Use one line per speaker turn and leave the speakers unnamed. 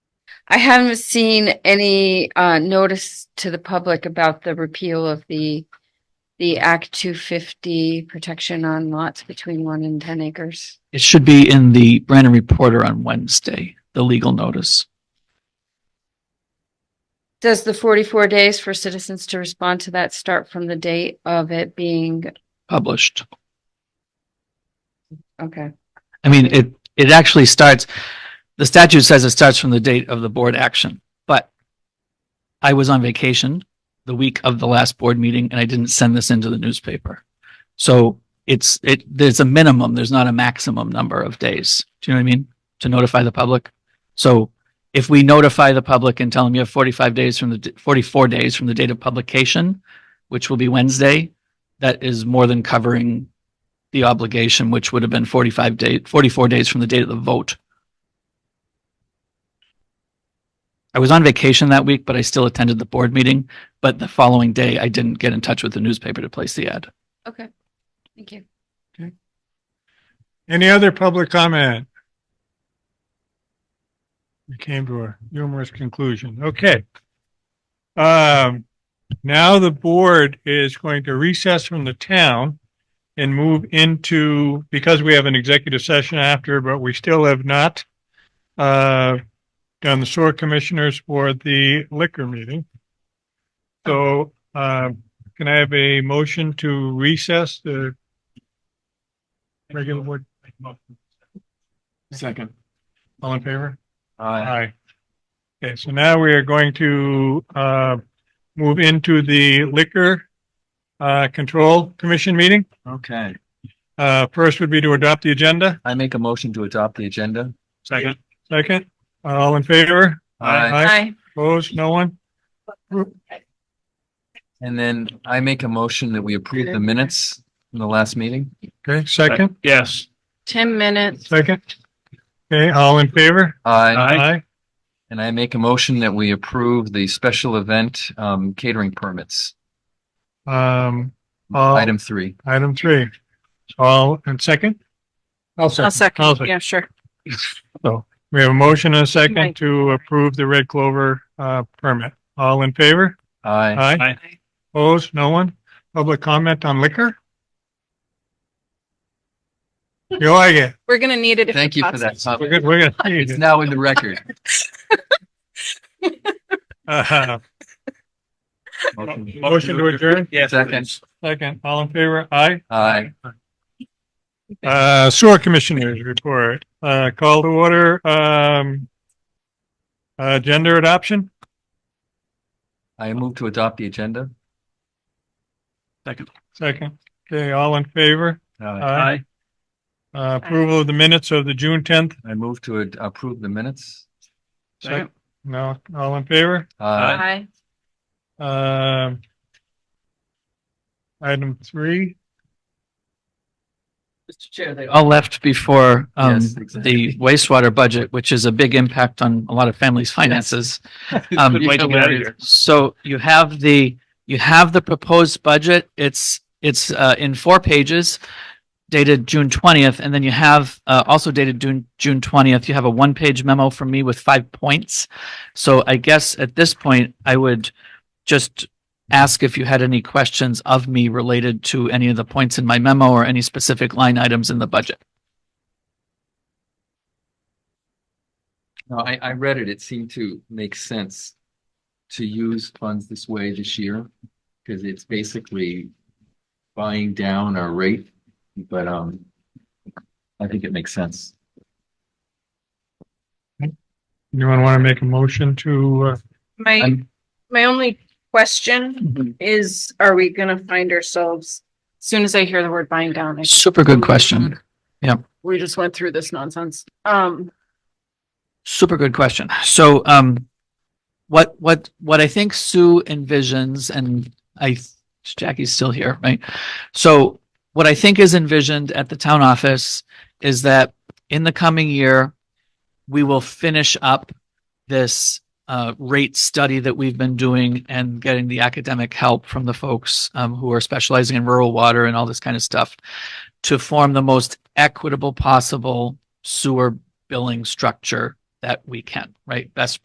I haven't seen any uh notice to the public about the repeal of the the Act two fifty protection on lots between one and ten acres.
It should be in the Brandon Reporter on Wednesday, the legal notice.
Does the forty-four days for citizens to respond to that start from the date of it being,
published.
okay,
I mean, it, it actually starts, the statute says it starts from the date of the board action, but I was on vacation the week of the last board meeting and I didn't send this into the newspaper. So it's, it, there's a minimum, there's not a maximum number of days. Do you know what I mean? To notify the public. So if we notify the public and tell them you have 45 days from the, d- 44 days from the date of publication, which will be Wednesday, that is more than covering the obligation, which would have been 45 days, 44 days from the date of the vote. I was on vacation that week, but I still attended the board meeting. But the following day, I didn't get in touch with the newspaper to place the ad.
okay, thank you.
Any other public comment? We came to a humorous conclusion. Okay. Um, now the board is going to recess from the town and move into, because we have an executive session after, but we still have not uh, done the sewer commissioners or the liquor meeting. So, um, can I have a motion to recess the regular board?
Second.
All in favor? Aye. Okay, so now we are going to uh move into the liquor uh control commission meeting.
Okay,
Uh, first would be to adopt the agenda.
I make a motion to adopt the agenda.
Second. Second, all in favor?
Aye.
Hi,
Opposed? No one?
And then I make a motion that we approve the minutes from the last meeting.
Okay, second,
Yes.
ten minutes.
second. Okay, all in favor?
Aye.
Aye.
And I make a motion that we approve the special event um catering permits,
Um, all,
item three.
item three. All, and second?
Oh,
I'll I'll second.
sure.
We have a motion and a second
Right.
to approve the Red Clover uh permit. All in favor?
Aye.
Aye.
Aye.
Opposed? No one? Public comment on liquor? You like it?
We're gonna need it. if
Thank
it
you for that.
passes.
We're
comment.
good, we're
It's
good.
now in the record.
Uh,
Motion.
Motion to adjourn?
Yes.
Second.
Second, all in favor? Aye.
Aye.
Uh, sewer commissioners report, uh, call to order, um, uh, gender adoption?
I move to adopt the agenda.
Second. Okay, all in favor?
Aye.
Aye. Uh, approval of the minutes of the June tenth?
I move to ad- approve the minutes.
Second.
No, all in favor?
Hi.
Aye.
Um, item three?
Mr. Chair, they all left before um,
Yes,
the
exactly.
wastewater budget, which is a big impact on a lot of families' finances. Um,
Good way to get out of here.
So you have the, you have the proposed budget. It's, it's uh, in four pages dated June twentieth, and then you have uh, also dated June, June twentieth. You have a one-page memo from me with five points. So I guess at this point, I would just ask if you had any questions of me related to any of the points in my memo or any specific line items in the budget.
No, I, I read it. It seemed to make sense to use funds this way this year because it's basically buying down our rate, but, um, I think it makes sense.
Anyone want to make a motion to, uh,
My,
I'm-
my only question is, are we gonna find ourselves, as soon as I hear the word buying down, I-
Super good question.
we just went through this nonsense. Um,
Super good question. So, um, what, what, what I think Sue envisions, and I, Jackie's still here, right? So what I think is envisioned at the town office is that in the coming year, we will finish up this, uh, rate study that we've been doing and getting the academic help from the folks, um, who are specializing in rural water and all this kind of stuff to form the most equitable possible sewer billing structure that we can, right? Best